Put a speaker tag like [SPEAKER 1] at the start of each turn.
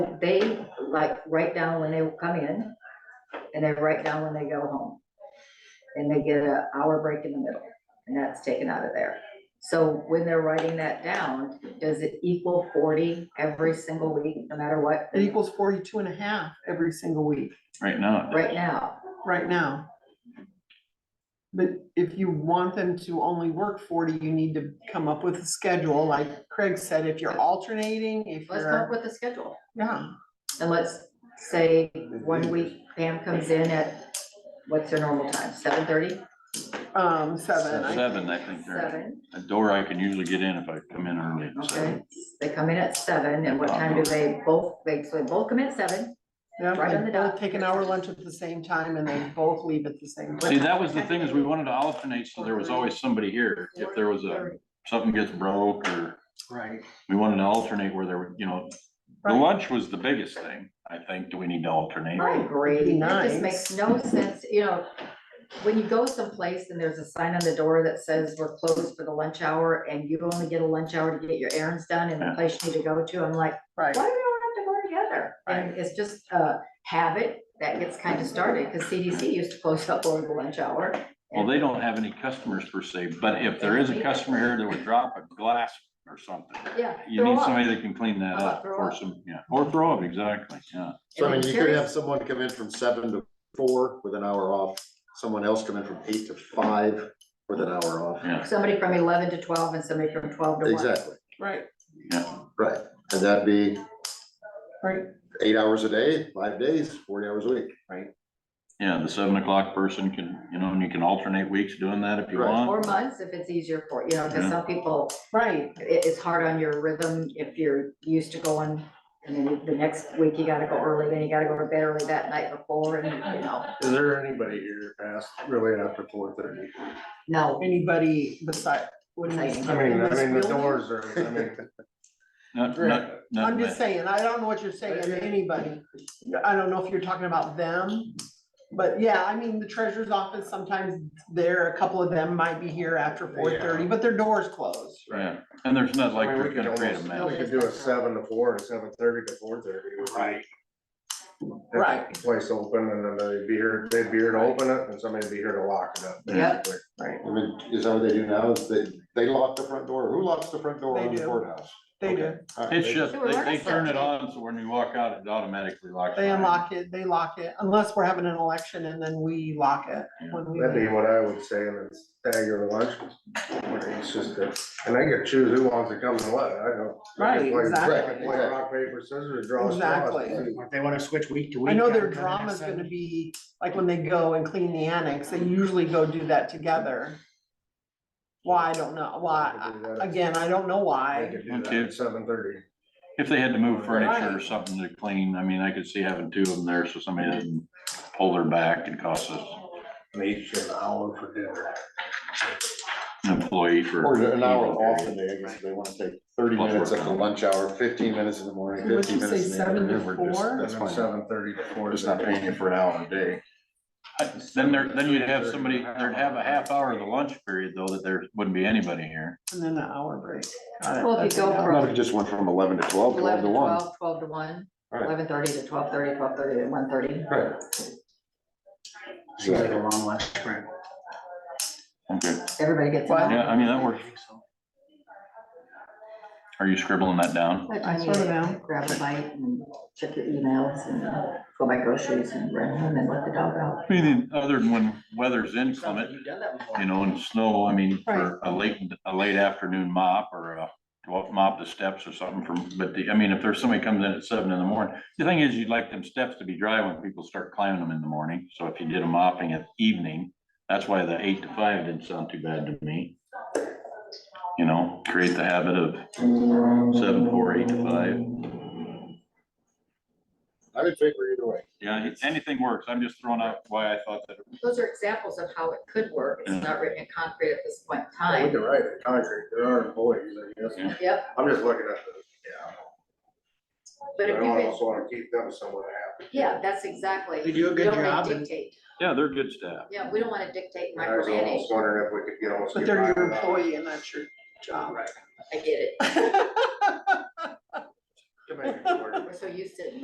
[SPEAKER 1] they like write down when they come in and they write down when they go home. And they get an hour break in the middle and that's taken out of there. So when they're writing that down, does it equal forty every single week, no matter what?
[SPEAKER 2] It equals 42 and a half every single week
[SPEAKER 3] right now.
[SPEAKER 1] Right now,
[SPEAKER 2] right now. But if you want them to only work forty, you need to come up with a schedule, like Craig said, if you're alternating, if
[SPEAKER 1] let's come up
[SPEAKER 2] you're,
[SPEAKER 1] with a schedule.
[SPEAKER 2] yeah.
[SPEAKER 1] And let's say one week Pam comes in at, what's her normal time, seven thirty?
[SPEAKER 2] Um, seven. I
[SPEAKER 3] Seven,
[SPEAKER 2] think.
[SPEAKER 3] I think, or
[SPEAKER 1] Seven,
[SPEAKER 3] a door I can usually get in if I come in early, so.
[SPEAKER 1] okay. They come in at seven and what time do they both, they, so they both come in at seven?
[SPEAKER 2] Yeah,
[SPEAKER 1] Right on
[SPEAKER 2] they
[SPEAKER 1] the
[SPEAKER 2] both
[SPEAKER 1] dot.
[SPEAKER 2] take an hour lunch at the same time and they both leave at the same
[SPEAKER 3] See,
[SPEAKER 2] time.
[SPEAKER 3] that was the thing, is we wanted to alternate, so there was always somebody here, if there was a, something gets broke, or
[SPEAKER 4] Right.
[SPEAKER 3] we wanted to alternate where there were, you know, the
[SPEAKER 2] Right.
[SPEAKER 3] lunch was the biggest thing, I think, do we need to alternate?
[SPEAKER 1] I agree,
[SPEAKER 2] Be
[SPEAKER 1] it just
[SPEAKER 2] nice.
[SPEAKER 1] makes no sense, you know, when you go someplace and there's a sign on the door that says we're closed for the lunch hour and you only get a lunch hour to get your errands done in the
[SPEAKER 3] Yeah.
[SPEAKER 1] place you need to go to, I'm like, why
[SPEAKER 2] Right,
[SPEAKER 1] do we all have to go together? And it's just a habit that gets kind of started, because CDC used to close up over the lunch hour.
[SPEAKER 3] Well, they don't have any customers per se, but if there is a customer here that would drop a glass or something,
[SPEAKER 1] Yeah.
[SPEAKER 3] you
[SPEAKER 1] throw
[SPEAKER 3] need
[SPEAKER 1] up.
[SPEAKER 3] somebody that can clean that
[SPEAKER 1] How about
[SPEAKER 3] up,
[SPEAKER 1] throw
[SPEAKER 3] or
[SPEAKER 1] up?
[SPEAKER 3] some, yeah, or throw up, exactly, yeah.
[SPEAKER 4] So I
[SPEAKER 1] And
[SPEAKER 4] mean,
[SPEAKER 1] I'm
[SPEAKER 4] you could have
[SPEAKER 1] curious-
[SPEAKER 4] someone come in from seven to four with an hour off, someone else come in from eight to five with an hour off.
[SPEAKER 3] Yeah,
[SPEAKER 1] Somebody from eleven to twelve and somebody from twelve to one.
[SPEAKER 4] Exactly,
[SPEAKER 2] right,
[SPEAKER 3] yeah,
[SPEAKER 4] right. And that'd be
[SPEAKER 2] right,
[SPEAKER 4] eight hours a day, five days, forty hours a week.
[SPEAKER 3] yeah, the seven o'clock person can, you know, and you can alternate weeks doing that if you
[SPEAKER 4] Right.
[SPEAKER 3] want.
[SPEAKER 1] Or months if it's easier for, you know, because
[SPEAKER 3] Yeah.
[SPEAKER 1] some people,
[SPEAKER 2] right,
[SPEAKER 1] it, it's hard on your rhythm if you're used to going. And then the next week you gotta go early, then you gotta go to bed early that night before and, you know,
[SPEAKER 5] Is there anybody here past really after four thirty?
[SPEAKER 1] no.
[SPEAKER 2] anybody beside, wouldn't
[SPEAKER 1] I
[SPEAKER 2] I?
[SPEAKER 1] mean,
[SPEAKER 5] I mean, I mean, the doors are, I mean,
[SPEAKER 3] Not, not, not
[SPEAKER 2] I'm just
[SPEAKER 3] that-
[SPEAKER 2] saying, I don't know what you're saying, anybody, I don't know if you're talking about them. But yeah, I mean, the treasurer's office, sometimes there, a couple of them might be here after four thirty, but their door's closed.
[SPEAKER 3] yeah, and there's not like
[SPEAKER 5] I mean,
[SPEAKER 3] they're
[SPEAKER 5] we could
[SPEAKER 3] gonna create a
[SPEAKER 5] almost,
[SPEAKER 3] mess.
[SPEAKER 5] we could do a seven to four, or seven thirty to four thirty. Right.
[SPEAKER 2] Right.
[SPEAKER 5] Place open and then they'd be here, they'd be here to open it and somebody'd be here to lock it up.
[SPEAKER 1] Yep.
[SPEAKER 5] basically.
[SPEAKER 2] Right,
[SPEAKER 4] I mean, is that what they do now? Is they, they lock the front door. Who locks the front door
[SPEAKER 2] They
[SPEAKER 4] on the
[SPEAKER 2] do.
[SPEAKER 4] courthouse?
[SPEAKER 2] they do,
[SPEAKER 4] All right,
[SPEAKER 3] It's
[SPEAKER 4] they-
[SPEAKER 3] just,
[SPEAKER 1] They were
[SPEAKER 3] they, they
[SPEAKER 1] arrested.
[SPEAKER 3] turn it on, so when you walk out, it automatically locks.
[SPEAKER 2] they
[SPEAKER 3] behind.
[SPEAKER 2] unlock it, they lock it, unless we're having an election and then we lock it when we.
[SPEAKER 5] That'd be
[SPEAKER 2] leave.
[SPEAKER 5] what I would say, and it's stagger the lunch. It's just, a- and they could choose who wants to come and what, I don't.
[SPEAKER 2] Right, exactly.
[SPEAKER 5] Play rock, paper, scissors, draw a straw.
[SPEAKER 2] Exactly.
[SPEAKER 6] If they wanna switch week to week.
[SPEAKER 2] I know their
[SPEAKER 6] I'm kinda
[SPEAKER 2] drama's
[SPEAKER 6] excited.
[SPEAKER 2] gonna be, like, when they go and clean the annex, they usually go do that together. Why, I don't know, why, again, I don't know why.
[SPEAKER 3] Okay.
[SPEAKER 5] Seven thirty.
[SPEAKER 3] If they had to move furniture or
[SPEAKER 2] Right.
[SPEAKER 3] something to clean, I mean, I could see having two of them there, so somebody doesn't pull their back and cost us
[SPEAKER 5] Each an hour for dinner.
[SPEAKER 3] an employee for.
[SPEAKER 4] Or an hour off the day, I guess they wanna take thirty
[SPEAKER 3] Plus
[SPEAKER 4] minutes
[SPEAKER 3] work
[SPEAKER 4] at the
[SPEAKER 3] time.
[SPEAKER 4] lunch hour, fifteen minutes in the morning,
[SPEAKER 2] What'd
[SPEAKER 4] fifteen
[SPEAKER 2] you say,
[SPEAKER 4] minutes in the
[SPEAKER 2] seven to
[SPEAKER 4] afternoon. We're just-
[SPEAKER 2] four?
[SPEAKER 4] That's fine.
[SPEAKER 5] Seven thirty to four.
[SPEAKER 4] We're just not paying you for an hour a day.
[SPEAKER 3] Then there, then you'd have somebody, there'd have a half hour of the lunch period, though, that there wouldn't be anybody here.
[SPEAKER 2] And then an hour break. Got it.
[SPEAKER 1] Well, if you
[SPEAKER 2] That's an
[SPEAKER 1] go
[SPEAKER 2] hour.
[SPEAKER 4] Or not, if you just went from eleven to 12, 12
[SPEAKER 1] 11
[SPEAKER 4] to
[SPEAKER 1] to
[SPEAKER 4] one.
[SPEAKER 1] 12, 12 to one,
[SPEAKER 4] Right.
[SPEAKER 1] eleven thirty to twelve thirty, twelve thirty to one thirty.
[SPEAKER 4] Right.
[SPEAKER 6] Seems like a
[SPEAKER 4] Exactly.
[SPEAKER 6] long lunch break.
[SPEAKER 3] Okay,
[SPEAKER 1] Everybody gets. an
[SPEAKER 2] Well,
[SPEAKER 1] hour.
[SPEAKER 3] yeah, I mean, that works.
[SPEAKER 6] think so.
[SPEAKER 3] Are you scribbling that down?
[SPEAKER 1] By the time
[SPEAKER 2] I
[SPEAKER 1] you
[SPEAKER 2] sort of am.
[SPEAKER 1] Grab a bite and check your emails and go buy groceries and run home and let the dog out.
[SPEAKER 3] I mean, other than when weather's
[SPEAKER 6] Sounds like
[SPEAKER 3] inclement,
[SPEAKER 6] you've done that before.
[SPEAKER 3] you know, and snow, I mean, for a late, a late afternoon mop or a to mop the steps or something from, but the, I mean, if there's somebody comes in at seven in the morning, the thing is, you'd like them steps to be dry when people start climbing them in the morning. So if you did a mopping at evening, that's why the eight to five didn't sound too bad to me. You know, create the habit of seven, four, eight to five.
[SPEAKER 4] I'm in favor either way.
[SPEAKER 3] Yeah, anything works. I'm just throwing out why I thought that.
[SPEAKER 1] Those are examples of how it could work. It's not written in concrete at this point in
[SPEAKER 5] We
[SPEAKER 1] time.
[SPEAKER 5] can write it concrete, there are employees, I guess.
[SPEAKER 1] Yep,
[SPEAKER 5] I'm just looking at the,
[SPEAKER 1] but
[SPEAKER 5] yeah.
[SPEAKER 1] if
[SPEAKER 5] I
[SPEAKER 1] you
[SPEAKER 5] don't
[SPEAKER 1] could,
[SPEAKER 5] also wanna keep them somewhere happy.
[SPEAKER 1] yeah, that's exactly.
[SPEAKER 6] They do a
[SPEAKER 1] We
[SPEAKER 6] good
[SPEAKER 1] don't wanna
[SPEAKER 6] job and-
[SPEAKER 1] dictate.
[SPEAKER 3] Yeah, they're good staff.
[SPEAKER 1] Yeah, we don't want to dictate
[SPEAKER 5] I was
[SPEAKER 1] micromanage.
[SPEAKER 5] almost wondering if we could get almost.
[SPEAKER 2] But
[SPEAKER 5] get
[SPEAKER 2] they're
[SPEAKER 5] by
[SPEAKER 2] your
[SPEAKER 5] without-
[SPEAKER 2] employee and that's your job.
[SPEAKER 1] I get it.
[SPEAKER 5] to make it work.
[SPEAKER 1] We're so used to